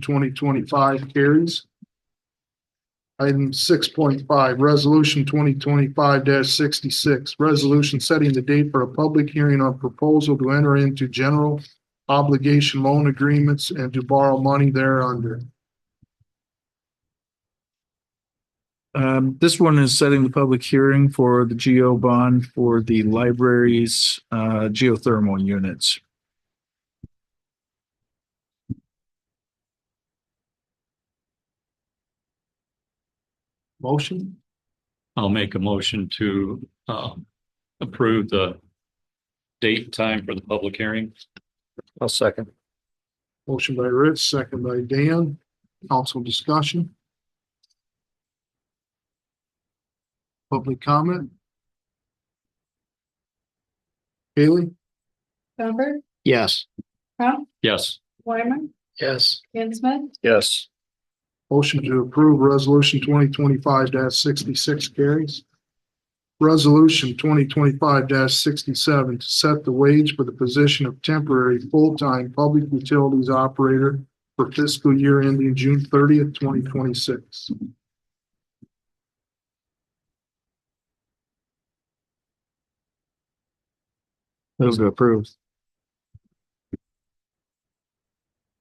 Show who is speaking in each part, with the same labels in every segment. Speaker 1: twenty twenty-five carries. Item six point five, resolution twenty twenty-five sixty-six, resolution setting the date for a public hearing on proposal to enter into general obligation loan agreements and to borrow money thereunder.
Speaker 2: Um, this one is setting the public hearing for the GO bond for the library's, uh, geothermal units.
Speaker 1: Motion?
Speaker 3: I'll make a motion to um approve the date and time for the public hearing.
Speaker 2: I'll second.
Speaker 1: Motion by Rich, second by Dan. Council discussion. Public comment. Haley?
Speaker 4: Bamber,
Speaker 2: Yes.
Speaker 4: Crown,
Speaker 3: Yes,
Speaker 4: Weimer,
Speaker 2: Yes.
Speaker 4: Dan Smith,
Speaker 2: Yes.
Speaker 1: Motion to approve resolution twenty twenty-five sixty-six carries. Resolution twenty twenty-five sixty-seven to set the wage for the position of temporary full-time public utilities operator for fiscal year ending June thirtieth, twenty twenty-six.
Speaker 2: Move to approve.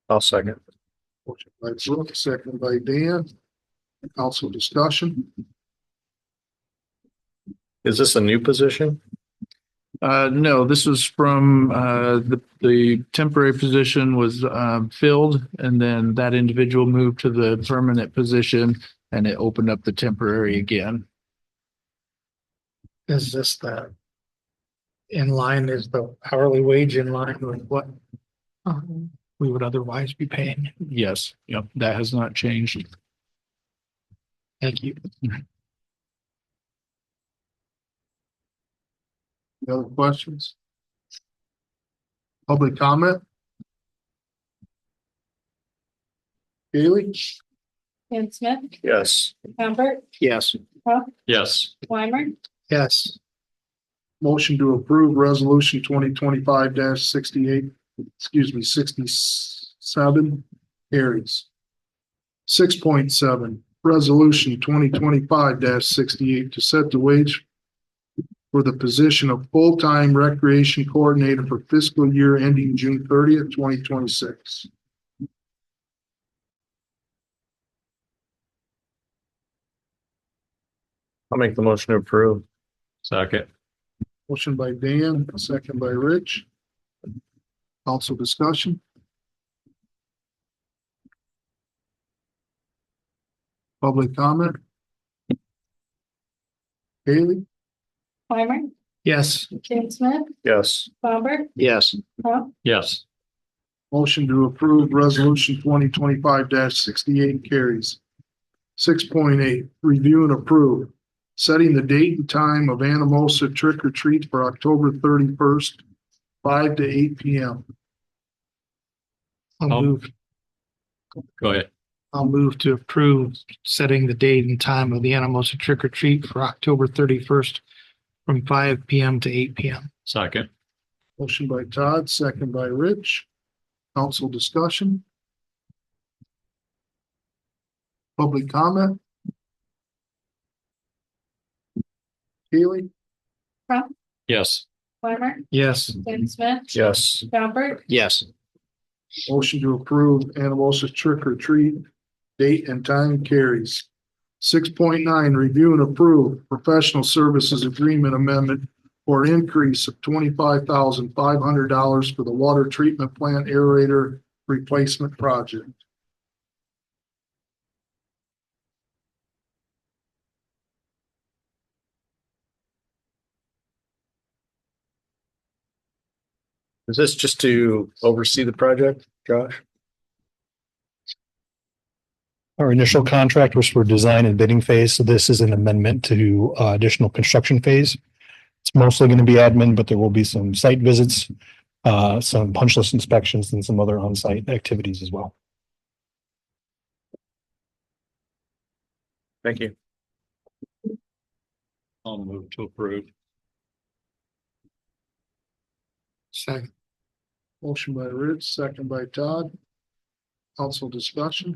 Speaker 2: I'll second.
Speaker 1: Motion by Brooke, second by Dan. Council discussion.
Speaker 5: Is this a new position?
Speaker 2: Uh, no, this was from, uh, the, the temporary position was, um, filled and then that individual moved to the permanent position and it opened up the temporary again.
Speaker 6: Is this the? In line, is the hourly wage in line with what? um, We would otherwise be paying.
Speaker 2: Yes, yep, that has not changed.
Speaker 6: Thank you.
Speaker 1: Any Other questions? Public comment? Haley?
Speaker 4: Dan Smith,
Speaker 5: Yes.
Speaker 4: Bamber,
Speaker 2: Yes.
Speaker 4: Crown,
Speaker 3: yes,
Speaker 4: Weimer,
Speaker 6: Yes,
Speaker 1: Motion to approve resolution twenty twenty-five sixty-eight, excuse me, sixty-seven carries. Six point seven, resolution twenty twenty-five sixty-eight to set the wage for the position of full-time recreation coordinator for fiscal year ending June thirtieth, twenty twenty-six.
Speaker 5: I'll make the motion to approve.
Speaker 3: second,
Speaker 1: Motion by Dan, second by Rich. Council discussion. Public comment. Haley?
Speaker 4: Weimer,
Speaker 6: yes,
Speaker 4: Dan Smith,
Speaker 5: Yes.
Speaker 4: Bamber,
Speaker 2: Yes.
Speaker 4: Crown,
Speaker 3: yes,
Speaker 1: Motion to approve resolution twenty twenty-five sixty-eight carries. Six point eight, review and approve. Setting the date and time of Anamosa trick or treat for October thirty-first, five to eight P M.
Speaker 6: I'll
Speaker 3: Um,
Speaker 6: move,
Speaker 3: go ahead,
Speaker 6: I'll move to approve setting the date and time of the animals to trick or treat for October thirty first. From five P M to eight P M.
Speaker 3: second,
Speaker 1: Motion by Todd, second by Rich. Council discussion. Public comment. Haley?
Speaker 3: yes,
Speaker 4: Weimer,
Speaker 6: Yes,
Speaker 4: Dan Smith,
Speaker 5: Yes.
Speaker 4: Bamber,
Speaker 2: Yes.
Speaker 1: Motion to approve Anamosa trick or treat, date and time carries. Six point nine, review and approve professional services agreement amendment for an increase of twenty-five thousand five hundred dollars for the water treatment plant aerator replacement project.
Speaker 5: Is this just to oversee the project, Josh?
Speaker 7: Our initial contract was for design and bidding phase, so this is an amendment to uh, additional construction phase. It's mostly going to be admin, but there will be some site visits, uh, some punch list inspections and some other on-site activities as well.
Speaker 5: Thank you.
Speaker 3: I'll move to approve,
Speaker 6: second,
Speaker 1: Motion by Rich, second by Todd. Council discussion?